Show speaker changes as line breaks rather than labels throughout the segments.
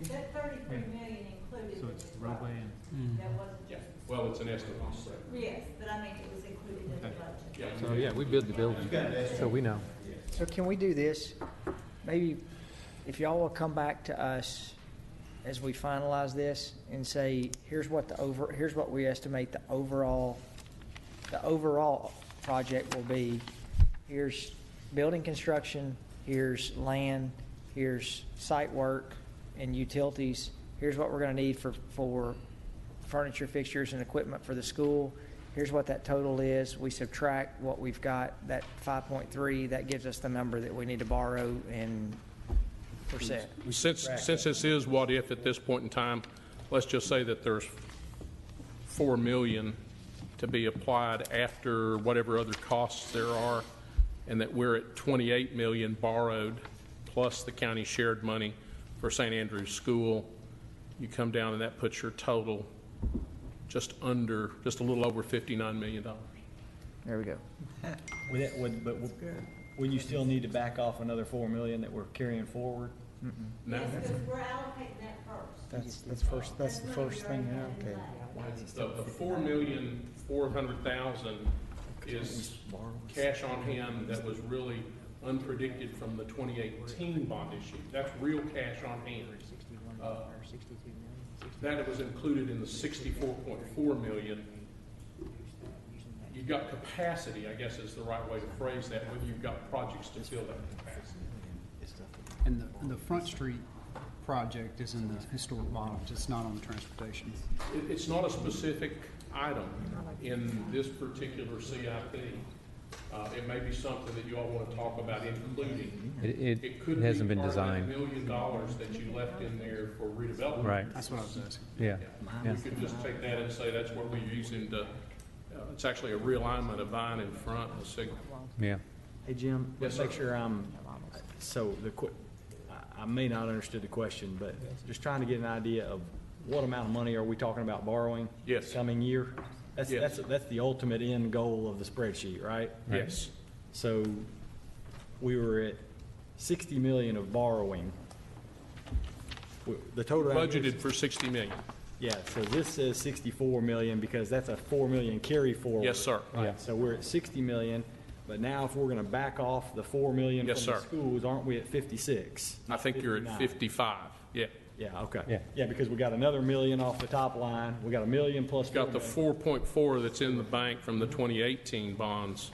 That thirty-three million included.
So
in
it's
this
roadway
budget.
and,
Mm-hmm.
That wasn't
Yeah,
just,
well, it's an estimate, so,
yes, but I mean, it was included in the
Okay.
budget.
yeah.
So, yeah, we build the building, so we know.
So can we do this? Maybe if y'all will come back to us as we finalize this and say, here's what the over, here's what we estimate the overall, the overall project will be. Here's building construction, here's land, here's site work and utilities. Here's what we're gonna need for, for furniture, fixtures, and equipment for the school. Here's what that total is. We subtract what we've got, that five point three, that gives us the number that we need to borrow and percent.
Since, since this is what if at this point in time, let's just say that there's four million to be applied after whatever other costs there are, and that we're at twenty-eight million borrowed, plus the county shared money for St. Andrew's School. You come down and that puts your total just under, just a little over fifty-nine million dollars.
There we go.
would that, would, but would- would you still need to back off another four million that we're carrying forward?
No?
Yes, because we're allocating that first.
That's, that's first, that's the
money we
first thing you
already had in
allocate.
the
The, the four million, four hundred thousand is cash on hand that was really unpredicted from the twenty eighteen bond issue. That's real cash on hand. Uh, That was included in the sixty-four point four million. You've got capacity, I guess is the right way to phrase that, whether you've got projects to fill that capacity.
And the, and the Front Street project is in the historic model, it's not on the transportation.
It, it's not a specific item in this particular CIP. Uh, it may be something that you all want to talk about including.
It,
It
it
could be part
hasn't been
of that
designed,
million dollars that you left in there for redevelopment.
right,
That's what I was asking.
yeah,
You
yeah.
could just take that and say that's what we're using to, uh, it's actually a realignment of Vine in front of Signal.
yeah.
Hey, Jim,
Yes,
let's make
sir.
sure I'm, so the que, I, I may not understood the question, but just trying to get an idea of what amount of money are we talking about borrowing?
Yes.
Coming year? That's,
Yes.
that's, that's the ultimate end goal of the spreadsheet, right?
Yes.
So we were at sixty million of borrowing. W- The total. out here is-
Budgeted for sixty million.
Yeah, so this says sixty-four million because that's a four million carry forward.
Yes, sir.
Yeah.
Right, so we're at sixty million, but now if we're gonna back off the four million from
Yes,
the
sir.
schools, aren't we at fifty-six?
I think you're at
59.
fifty-five, yeah.
Yeah, okay.
Yeah.
Yeah, because we got another million off the top line, we got a million plus four
Got the
million.
four point four that's in the bank from the twenty eighteen bonds.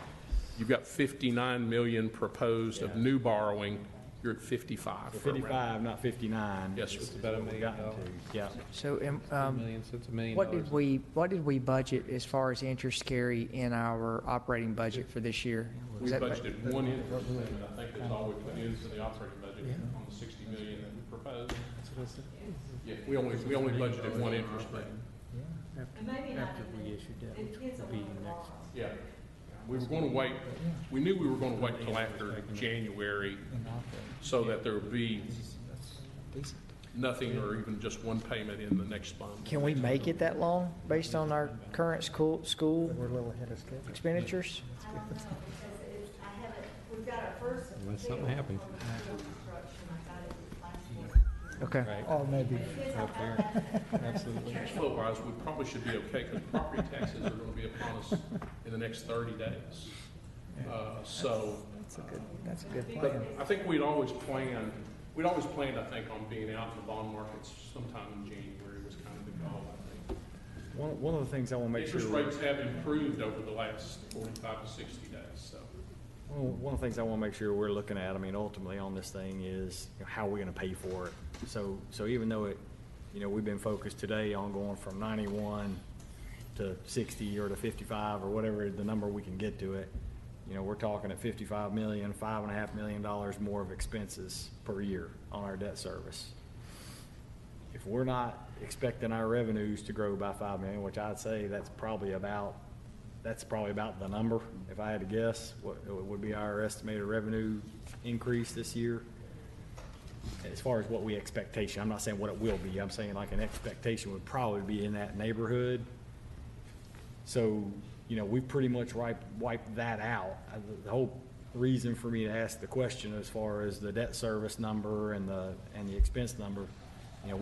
You've got fifty-nine million proposed of
Yeah.
new borrowing. You're at fifty-five. for a round.
Fifty-five, not fifty-nine.
Yes,
is
it's about a
what we
million
got to. Yeah,
So, um, um,
so it's a million
what did we, what did we budget as far as interest carry in our operating budget for this year?
We
Was that-
budgeted one interest payment, I think that's all we put in for the operating budget on the sixty million that we proposed. Yeah, we only, we only budgeted one interest payment,
And maybe not even, it depends on what we borrow.
yeah. We were gonna wait, we knew we were gonna wait till after January so that there would be nothing or even just one payment in the next month.
Can we make it that long based on our current school, school
We're a little ahead of schedule.
expenditures?
I don't know, because it's, I haven't, we've got our first.
Unless something
bill
happens.
on the school construction. I got it last week.
Okay.
Oh, maybe.
It depends on how fast it happens.
Cash flow wise, we probably should be okay because property taxes are gonna be upon us in the next thirty days. Uh, so,
That's a good, that's a good
But
plan.
I think we'd always planned, we'd always planned, I think, on being out in the bond markets sometime in January was kind of the goal, I think.
One, one of the things I wanna make sure.
Interest
we're-
rates have improved over the last forty-five to sixty days, so.
Well, one of the things I want to make sure we're looking at, I mean, ultimately on this thing is, you know, how are we going to pay for it? So, so even though it, you know, we've been focused today on going from ninety-one to sixty or to fifty-five or whatever the number we can get to it, you know, we're talking at fifty-five million, five and a half million dollars more of expenses per year on our debt service if we're not expecting our revenues to grow by five million, which I'd say that's probably about, that's probably about the number, if I had to guess, what what would be our estimated revenue increase this year? As far as what we expectation, I'm not saying what it will be, I'm saying like an expectation would probably be in that neighborhood. So, you know, we pretty much wiped, wiped that out. Uh, the- The whole reason for me to ask the question as far as the debt service number and the, and the expense number